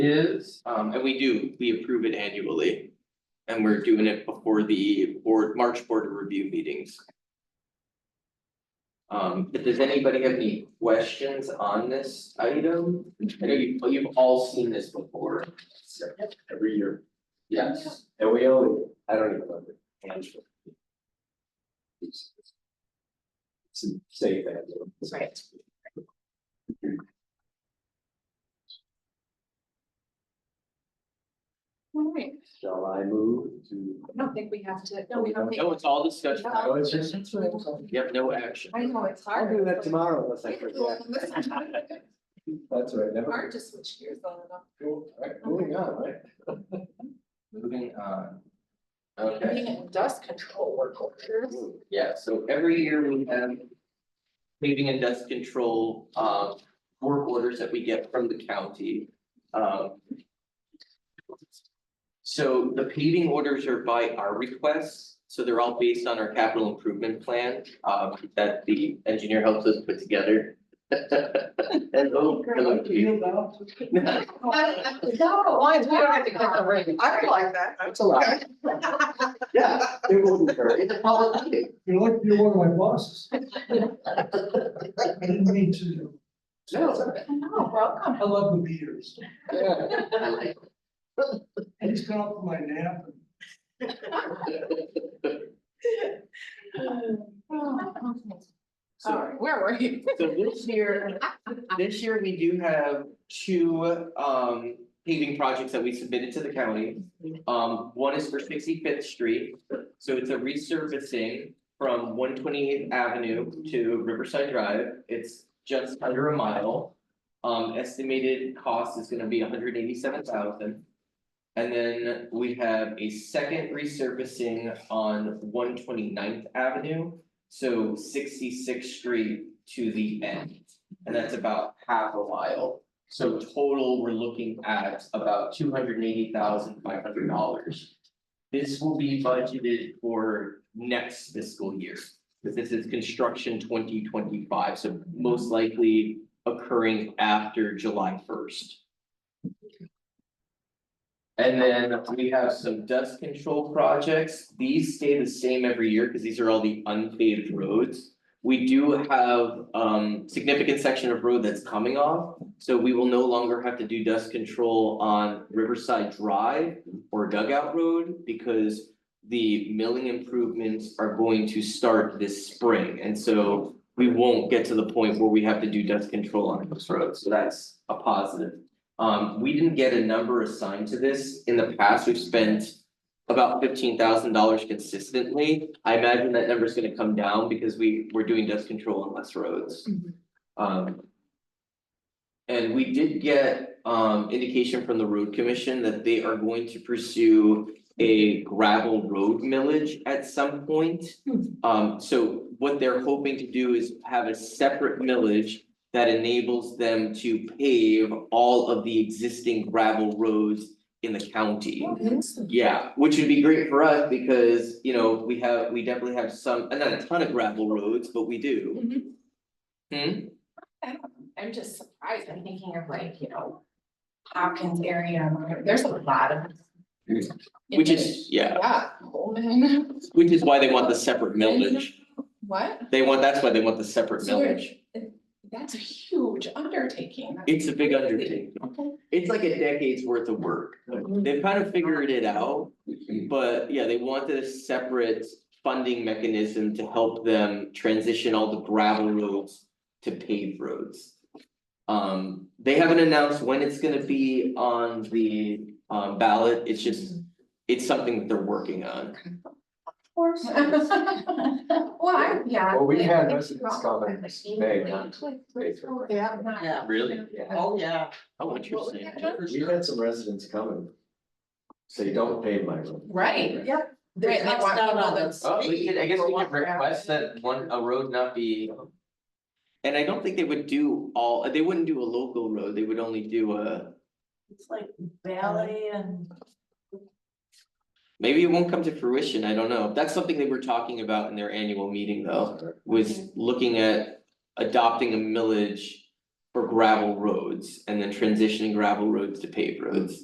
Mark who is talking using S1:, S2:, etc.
S1: is, um, and we do, we approve it annually. And we're doing it before the board, March board review meetings. Um, but does anybody have any questions on this item? I know you, you've all seen this before.
S2: every year.
S1: Yes,
S2: And we only, I don't even remember. handful. It's it's a safe handle.
S3: Right. All right,
S2: Shall I move to?
S3: I don't think we have to, no, we don't. think-
S1: no, it's all discussion.
S3: No.
S2: it's just- it's right.
S1: Yep, no action.
S3: I know, it's hard.
S2: I'll do that tomorrow unless I forget.
S3: Hard
S2: That's right, never.
S3: to switch gears on and off.
S2: Cool, all right, moving on, right?
S1: Moving on. Okay.
S3: Being in dust control work orders.
S1: Yeah, so every year we have paving and dust control, uh, work orders that we get from the county. Um, So the paving orders are by our requests, so they're all based on our capital improvement plan, um, that the engineer helps us put together. Hello, hello, Keith.
S3: No, why, we don't have to cut the ring. I don't like that.
S2: That's a lot. Yeah, it wouldn't hurt.
S1: It's a public meeting.
S4: You're like, you're one of my bosses. I didn't mean to.
S1: No,
S3: No, welcome.
S4: I love the beers.
S2: Yeah.
S1: I like
S4: I just got up from my nap.
S1: so.
S3: Sorry, where were you?
S1: So this year, this year we do have two um paving projects that we submitted to the county. Um, one is for sixty fifth street, so it's a resurfacing from one twenty eighth avenue to Riverside Drive, it's just under a mile. Um, estimated cost is gonna be hundred eighty seven thousand. And then we have a second resurfacing on one twenty ninth avenue. So sixty-sixth street to the end, and that's about half a mile. So total, we're looking at about two hundred and eighty thousand five hundred dollars. This will be budgeted for next fiscal year, because this is construction twenty twenty-five, so most likely occurring after July first. And then we have some dust control projects. These stay the same every year because these are all the unpaved roads. We do have um significant section of road that's coming off, so we will no longer have to do dust control on Riverside Drive or Dugout Road because the milling improvements are going to start this spring, and so we won't get to the point where we have to do dust control on those roads, so that's a positive. Um, we didn't get a number assigned to this. In the past, we've spent about fifteen thousand dollars consistently. I imagine that number's gonna come down because we, we're doing dust control on less roads.
S3: Mhm.
S1: Um. And we did get, um, indication from the road commission that they are going to pursue a gravel road millage at some point.
S3: Hmm.
S1: Um, so what they're hoping to do is have a separate millage that enables them to pave all of the existing gravel roads in the county. Yeah, which would be great for us because, you know, we have, we definitely have some, and not a ton of gravel roads, but we do.
S3: Mhm.
S1: Hmm,
S5: I'm just surprised, I'm thinking of like, you know, Hopkins area, Montgomery- there's a lot of.
S1: Mm-hmm. which is, yeah,
S5: Yeah, Coleman,
S1: which is why they want the separate millage.
S5: what?
S1: They want, that's why they want the separate
S5: So they're-
S1: millage.
S5: That's a huge undertaking.
S1: It's a big undertaking. It's like a decade's worth of work. They've kind of figured it out. But yeah, they wanted a separate funding mechanism to help them transition all the gravel roads to paved roads. Um, they haven't announced when it's gonna be on the um ballot, it's just, it's something that they're working on.
S3: course.
S5: Well, I, yeah.
S2: Well, we
S5: I
S2: had
S5: think
S2: residents
S5: you're
S2: come and
S5: right.
S2: stay, not stay for.
S3: Yeah.
S5: Not-
S1: Really?
S2: Yeah,
S6: Oh, yeah.
S1: Oh,
S5: What was
S1: interesting.
S5: that, John?
S2: we had some residents coming. Say, don't pave my road.
S5: Right, yeah,
S6: They
S5: Right, they
S6: lost
S5: want
S6: out on
S5: people
S6: the
S5: to-
S1: Oh, we could, I guess we
S6: speed for
S1: could
S6: what
S1: request
S6: happened.
S1: that one, a road not be. And I don't think they would do all, they wouldn't do a local road, they would only do a,
S6: It's like ballet and.
S1: maybe it won't come to fruition, I don't know. That's something they were talking about
S6: Mm-hmm.
S1: in their annual meeting though. was looking at adopting a millage for gravel roads and then transitioning gravel roads to paved roads.